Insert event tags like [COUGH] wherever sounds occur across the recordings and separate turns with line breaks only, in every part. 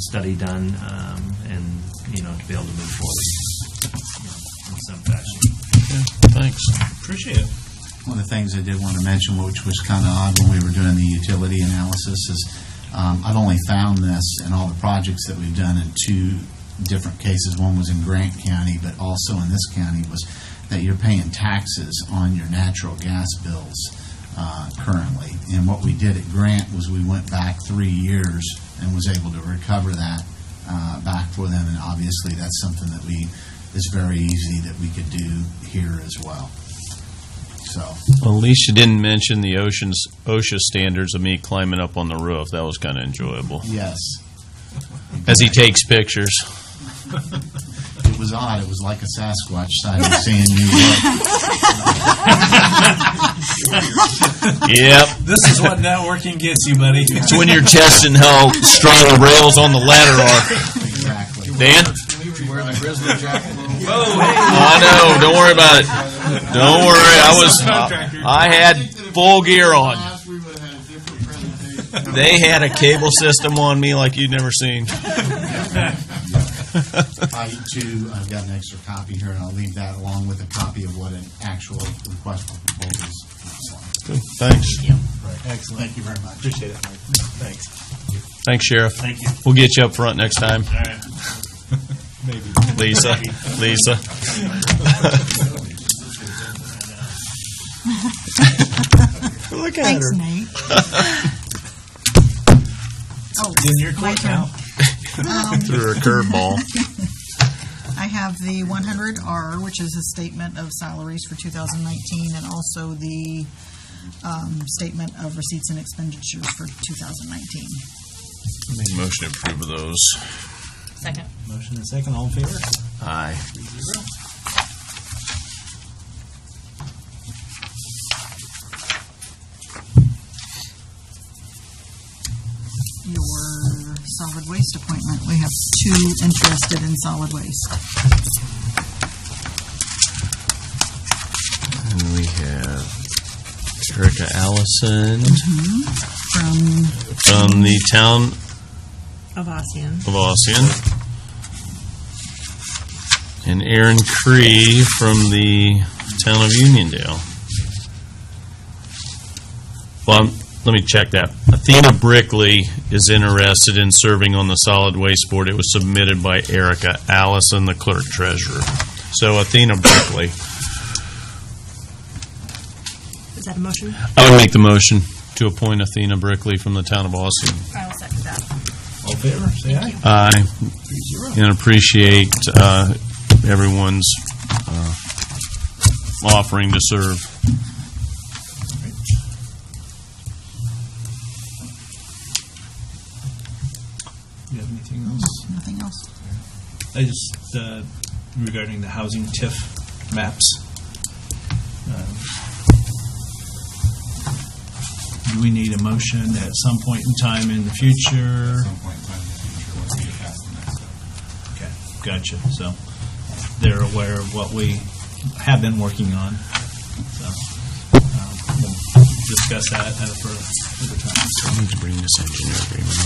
study done um, and, you know, to be able to move forward you know, in some fashion.
Thanks. Appreciate it.
One of the things I did want to mention, which was kind of odd when we were doing the utility analysis, is um, I've only found this in all the projects that we've done in two different cases. One was in Grant County, but also in this county, was that you're paying taxes on your natural gas bills uh, currently. And what we did at Grant was we went back three years and was able to recover that uh, back for them. And obviously, that's something that we, is very easy that we could do here as well. So,
Well, at least you didn't mention the oceans, OSHA standards of me climbing up on the roof. That was kind of enjoyable.
yes,
As he takes
[LAUGHS]
pictures.
it was odd. It was like a Sasquatch sighting, seeing New
[LAUGHS]
York.
Yep.
This is what networking gets you, buddy.
It's when you're testing how strong the rails on the ladder are.
Exactly.
Dan?
[LAUGHS]
Oh, I know. Don't worry about it. Don't worry. I was. I had full gear on.
we would have had a different presentation.
They had a cable system on me like you'd never seen.
I too, I've got an extra copy here, and I'll leave that along with a copy of what an actual request for proposal is.
Thanks.
Excellent. Thank you very much. Appreciate it.
Thanks, Sheriff.
Thank you.
We'll get you up front next time.
All right.
[LAUGHS] Lisa, Lisa. Look at
Thanks, Nate. [LAUGHS] Oh,
In your
my
court
turn.
now.
Threw her a curveball.
I have the 100R, which is a statement of salaries for 2019, and also the um, statement of receipts and expenditures for 2019.
Make a motion to approve of those.
Second.
Motion and second, all in favor?
Aye.
Your solid waste appointment, we have two interested in solid waste.
And we have Erica Allison
From
from the town
Avassian.
of Ossian. And Aaron Cree from the town of Uniondale. Well, I'm- let me check that. Athena Brickley is interested in serving on the solid waste board. It was submitted by Erica Allison, the clerk treasurer. So Athena Brickley.
Is that a motion?
I would make the motion to appoint Athena Brickley from the town of Ossian.
I will second that.
All in favor, say aye.
Aye. And appreciate uh, everyone's uh, offering to serve.
You have anything else?
nothing else.
I just, uh, regarding the housing TIF maps. um, Do we need a motion at some point in time in the future? Okay, gotcha. So they're aware of what we have been working on. So um, we'll discuss that at a further further time. So,
I need to bring this engineer agreement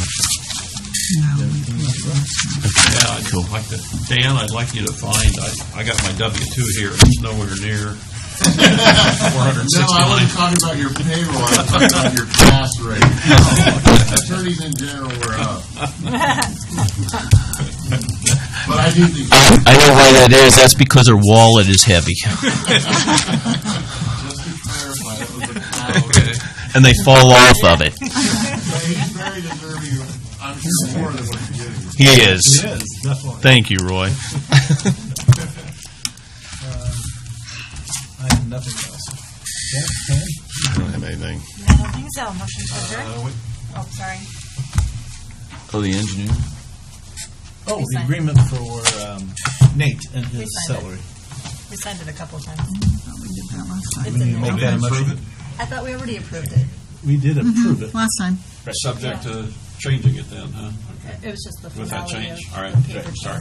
No,
Yeah, I'd like to, Dan, I'd like you to find, I, I got my W two here, it's nowhere near four hundred
[LAUGHS]
and
No, I
sixty-nine.
wasn't talking about your payroll, I was talking about your pass rate. [LAUGHS] Attorneys in general were up. But I do think
I know why that is. That's because her wallet is
[LAUGHS]
heavy.
Just to clarify, it was a
Okay.
And they fall off of it.
he's very deserving, of- I'm sure more than what he's getting.
He is.
Yes, definitely.
Thank you, Roy.
I have nothing else. Okay, Pam?
I don't have anything.
I don't think so. Motion to adjourn?
Uh, wait.
Oh, sorry.
Oh, the engineer?
Oh,
We
the
signed it.
agreement for um, Nate and his
signed it.
salary.
We signed it a couple of times.
we did that last time.
It's in there.
Make that a motion.
I thought we already approved it.
We did approve it.
Mm-hmm. Last time.
Subject to changing it then, huh? Okay.
It was just the
With that
finality of.
change, all right,
the paper
sorry.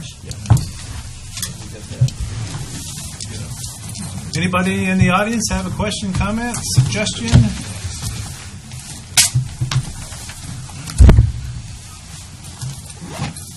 change.
Anybody in the audience have a question, comment, suggestion?